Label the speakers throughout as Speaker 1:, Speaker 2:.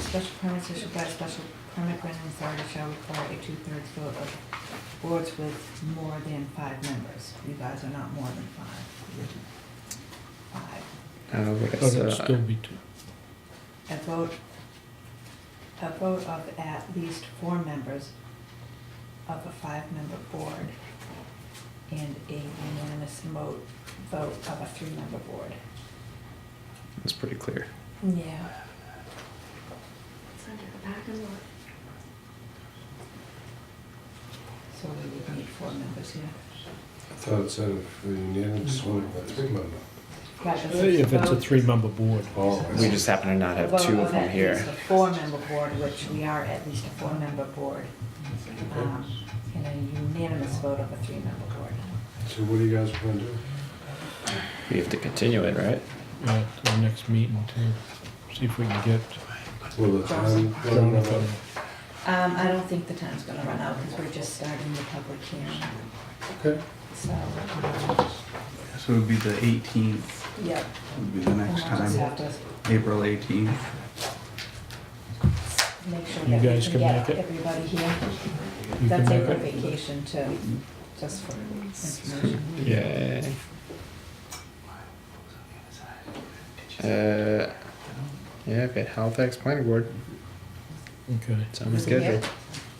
Speaker 1: special permits issued by a special permit granting authority shall require a two-thirds vote of boards with more than five members. You guys are not more than five. Five.
Speaker 2: Uh, what
Speaker 3: But it'd
Speaker 2: else?
Speaker 3: still
Speaker 2: Uh,
Speaker 3: be two.
Speaker 1: A vote, a vote of at least four members of a five-member board and a unanimous mo- vote of a three-member board.
Speaker 2: that's pretty clear.
Speaker 1: Yeah.
Speaker 4: It's under the back and look.
Speaker 1: So we would need four members here.
Speaker 5: I thought it said if we unanimous
Speaker 2: Mm-hmm.
Speaker 5: one of the three member.
Speaker 1: Right, but
Speaker 3: If it's a
Speaker 1: vote-
Speaker 3: three-member board.
Speaker 5: Oh, I
Speaker 2: We
Speaker 5: see.
Speaker 2: just happen to not have
Speaker 1: vote
Speaker 2: two of them
Speaker 1: at
Speaker 2: here.
Speaker 1: least a Four-member board, which we are at least a four-member board, um, and a unanimous vote of a three-member board.
Speaker 5: So what do you guys want to do?
Speaker 2: We have to continue it, right?
Speaker 3: Right, to the next meeting to see if we can get
Speaker 5: Well, the time, I don't
Speaker 3: Jonathan.
Speaker 5: know.
Speaker 1: Um, I don't think the time's gonna run out, because we're just starting the public hearing,
Speaker 5: Okay.
Speaker 1: so, um,
Speaker 6: So it would be the 18th
Speaker 1: yep.
Speaker 6: would be the next
Speaker 1: And I'll just
Speaker 6: time,
Speaker 1: have to
Speaker 6: April 18th.
Speaker 1: Make sure
Speaker 3: You
Speaker 1: that we
Speaker 3: guys
Speaker 1: can
Speaker 3: can
Speaker 1: get
Speaker 3: make it?
Speaker 1: everybody here.
Speaker 3: You can
Speaker 1: That's
Speaker 3: make
Speaker 1: April
Speaker 3: it?
Speaker 1: vacation too, just for information.
Speaker 2: Yeah. Uh, yeah, okay, Halifax Planning Board,
Speaker 3: Okay,
Speaker 2: it's on the
Speaker 1: Is it here?
Speaker 2: schedule.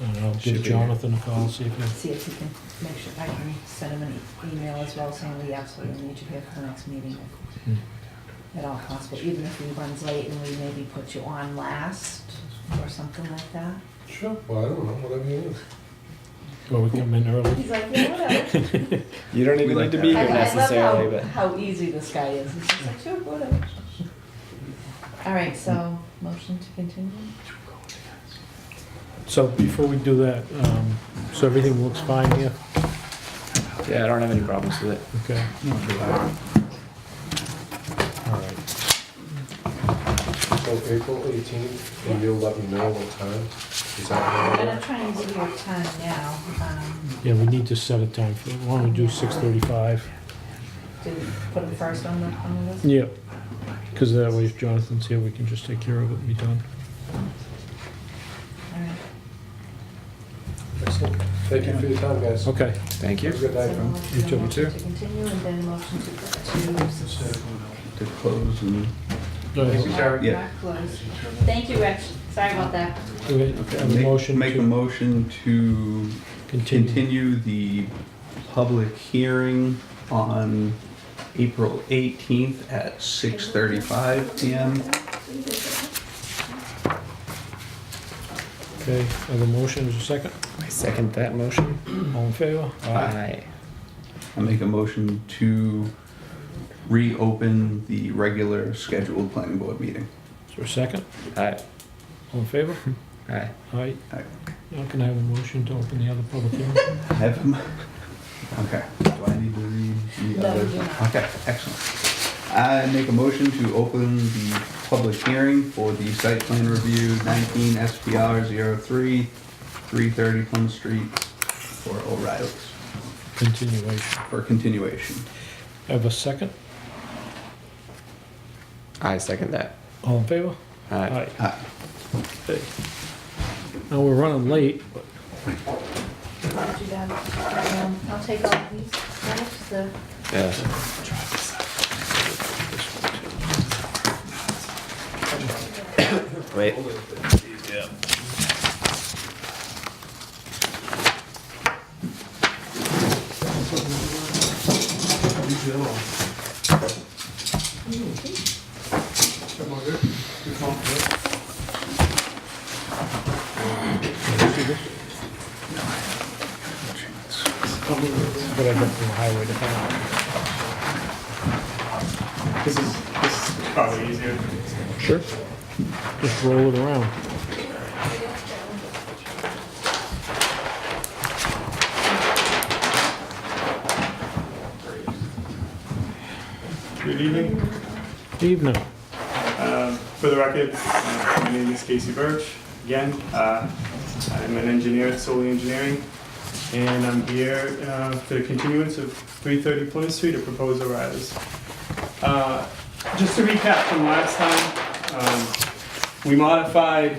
Speaker 3: and I'll
Speaker 2: Should
Speaker 3: give
Speaker 2: be.
Speaker 3: Jonathan a call, see if he,
Speaker 1: See if you can make sure, I can send him an e- email as well saying we absolutely need you here for the next meeting
Speaker 3: Hmm.
Speaker 1: at all possible, even if he runs late and we maybe put you on last or something like that.
Speaker 5: Sure, well, I don't know, whatever you want.
Speaker 3: or we come in early.
Speaker 1: He's like, yeah, whatever.
Speaker 2: You don't even
Speaker 6: We
Speaker 2: need
Speaker 6: like
Speaker 2: to
Speaker 6: that.
Speaker 2: be
Speaker 1: I,
Speaker 2: here
Speaker 1: I love
Speaker 2: necessarily,
Speaker 1: how,
Speaker 2: but
Speaker 1: how easy this guy is. He's just like, sure, whatever. All right, so motion to continue?
Speaker 3: So before we do that, um, so everything looks fine here?
Speaker 2: yeah, I don't have any problems with it.
Speaker 3: Okay, all right.
Speaker 5: So April eighteenth, and you'll let me know what time? Is
Speaker 1: I'm
Speaker 5: that
Speaker 1: gonna
Speaker 5: right?
Speaker 1: try and give you a time now. Um,
Speaker 3: Yeah, we need to set a time for, why don't we do six thirty-five?
Speaker 1: did we put him first on the, on the list?
Speaker 3: Yep, because that way if Jonathan's here, we can just take care of it and be done.
Speaker 1: All right.
Speaker 5: Excellent. Thank you for your time, guys. Have
Speaker 3: Okay,
Speaker 2: Thank
Speaker 5: a
Speaker 2: you.
Speaker 5: good night.
Speaker 1: You
Speaker 3: too.
Speaker 1: Motion to continue and then motion to, to.
Speaker 6: To close and
Speaker 3: go ahead.
Speaker 6: Yeah.
Speaker 1: Close. Thank you, Rich. Sorry about that.
Speaker 3: Okay, have a
Speaker 6: make-
Speaker 3: motion
Speaker 6: Make a
Speaker 3: to
Speaker 6: motion to
Speaker 3: continue.
Speaker 6: continue the public hearing on April 18th at 6:35 PM.
Speaker 3: Okay, have a motion, is there a second?
Speaker 2: I second that motion.
Speaker 3: All in favor?
Speaker 2: Aye.
Speaker 6: I make a motion to reopen the regular scheduled planning board meeting.
Speaker 3: Is there a second?
Speaker 2: Aye.
Speaker 3: All in favor?
Speaker 2: Aye.
Speaker 3: Aye.
Speaker 6: Aye.
Speaker 3: Now can I have a motion to open the other public hearing?
Speaker 6: Have, him- okay, do I need to read the
Speaker 1: No,
Speaker 6: other?
Speaker 1: you do not.
Speaker 6: Okay, excellent. I make a motion to open the public hearing for the site plan review nineteen SPR 03, 330 Plum Street for O'Reilly's,
Speaker 3: Continuation.
Speaker 6: for continuation.
Speaker 3: Have a second?
Speaker 2: I second that.
Speaker 3: All in favor?
Speaker 2: Aye.
Speaker 6: Aye.
Speaker 3: Okay. Now we're running late, but
Speaker 1: Put you down. Um, I'll take all of these. That's the-
Speaker 2: Yeah. Wait.
Speaker 3: but I got from the highway department.
Speaker 7: This is, this is probably easier.
Speaker 3: Sure. Just roll it around.
Speaker 7: Good evening.
Speaker 3: Evening.
Speaker 7: Um, For the record, uh, my name is Casey Birch. Again, uh, I'm an engineer at Solely Engineering, and I'm here uh, for the continuance of 330 Plymouth Street to propose O'Reilly's. Uh, Just to recap from last time, um, we modified